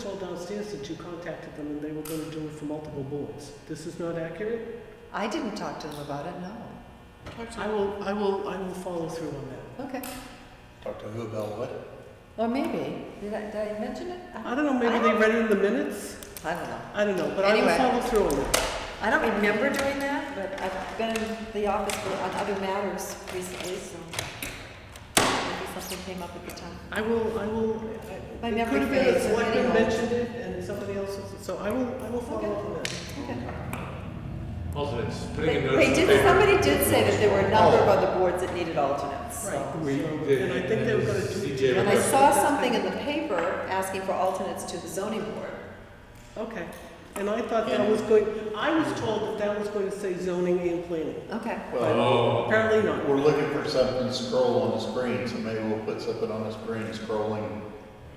told downstairs that you contacted them and they were going to do it for multiple boards. This is not accurate? I didn't talk to them about it, no. I will, I will, I will follow through on that. Okay. Talk to who about what? Or maybe, did I, did I mention it? I don't know, maybe they read it in the minutes? I don't know. I don't know, but I will Anyway. follow through on it. I don't remember doing that, but I've been in the office for, on other matters recently, so maybe something came up at the time. I will, I will. My it memory could have been fades, that so Selectman anyhow. mentioned it and somebody else, was- so I will, I will follow Okay. up on that. Alternates, putting They a notice they in the did, paper. somebody did say that there were a number of other boards that needed alternates, so. Right. We So- did, And I think they were going to do. CJ And I saw something in the paper asking for alternates to the zoning board. Okay, and I thought that was going, I was told that that was going to say zoning and planning. Okay. Well, Oh, Apparently not. we're looking for something to scroll on the screen, so maybe we'll put something on the screen scrolling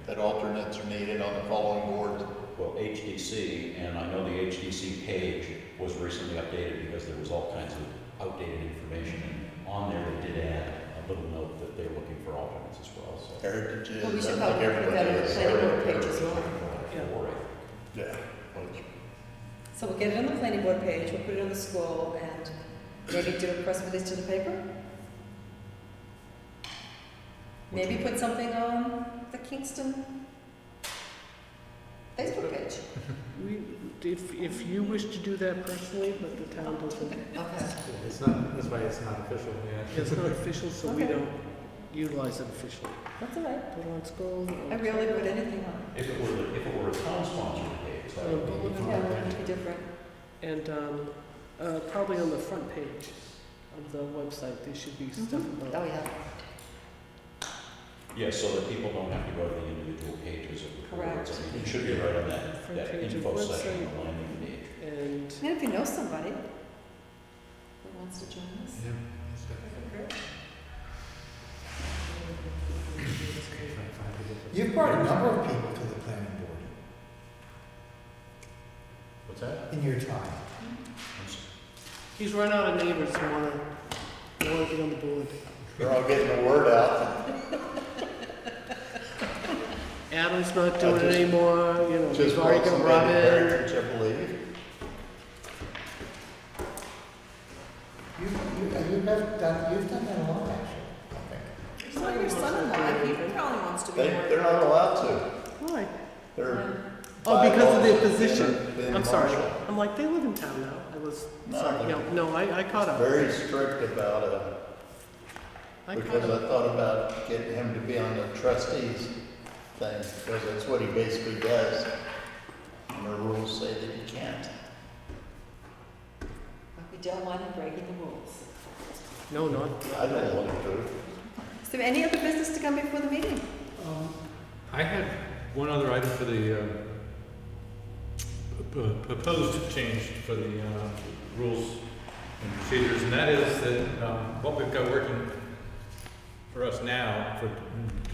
that alternates are needed on the following boards. Well, HDC, and I know the HDC page was recently updated because there was all kinds of outdated information. and On there, they did add a little note that they're looking for alternates as well, so. Heritage is. Well, we should I think probably put everybody that in the is planning board heritage. page as well. Yeah. Four, I Yeah. which- So we'll get it on the planning board page, we'll put it on the scroll, and maybe do a press release to the paper? Maybe put something on the Kingston Facebook page? We, if, if you wish to do that personally, but the town doesn't, Okay. it's not, that's why it's not official, yeah. it's not official, so we Okay. don't utilize it officially. That's all right. Put on scroll. I rarely put anything on. If it were, if it were a town-sponsored page, that would be. Yeah, that would be different. And, um, uh, probably on the front page of the website, there should be stuff Oh, about. yeah, Yeah, so that people don't have to go to the individual pages of the boards. Correct. I mean, it should be right on that, Front that page of info section, website. the landing page. And, and if you know somebody who wants to join us. Yeah. You've brought a number of people to the planning board What's that? in your time. he's run out of neighbors who wanna, who wanna be on the board. They're all getting the word out, Adam's not doing it just- anymore, you know, just we've want already got somebody in Robin. heritage, I believe. You, you, and you've never done, you've done that a lot, actually. I think. So your son-in-law, he probably wants to be. They, on it. they're not allowed to. Why? They're. Oh, because of their bylaws, position. they're- they're I'm sorry. martial. I'm like, they live in town now. I was, No, sorry, they're- no, no, I, I caught up. Very strict about it. I caught Because up. I thought about getting him to be on the trustees thing, because that's what he basically does. And the rules say that he can't. We don't want him breaking the rules. No, not, I don't want to do it. Is there any other business to come before the meeting? I had one other item for the, um, p- p- proposed change for the, um, rules and procedures, and that is that, um, what we've got working for us now for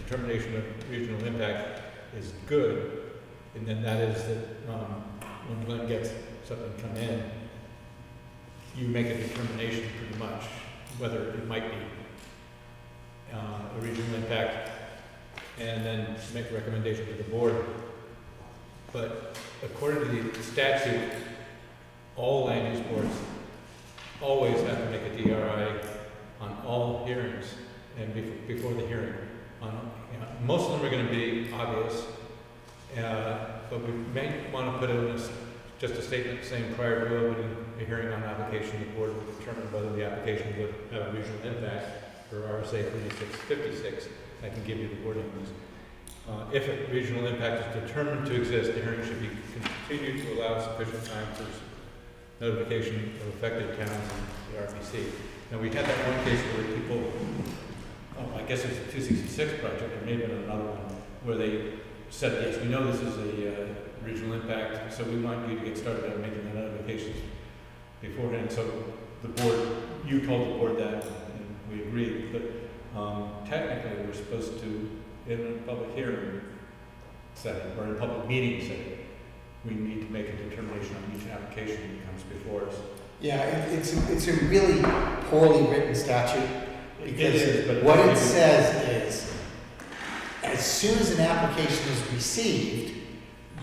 determination of regional impact is good, and then that is that, um, when Glenn gets something come in, you make a determination pretty much whether it might be, uh, a regional impact and then make a recommendation to the board. But according to the statute, all land use boards always have to make a DRI on all hearings and bef- before the hearing. On, you know, most of them are gonna be obvious, uh, but we may wanna put in this, just a statement saying prior to opening a hearing on application, the board will determine whether the application would have a regional impact for RSA thirty-six fifty-six. I can give you the wording on this. Uh, If a regional impact is determined to exist, the hearing should be continued to allow sufficient time for notification of affected towns and the RPC. Now, we had that one case where people, oh, I guess it was the two sixty-six project, or maybe another one, where they said, yes, we know this is a uh, regional impact, so we want you to get started on making the notifications beforehand. So the board, you told the board that, and we agreed, but um, technically, we're supposed to, in a public hearing setting, or in a public meeting setting, we need to make a determination on each application that comes before us. Yeah, it, it's, it's a really poorly written statute, It is, because but what it says is, as soon as an application is received,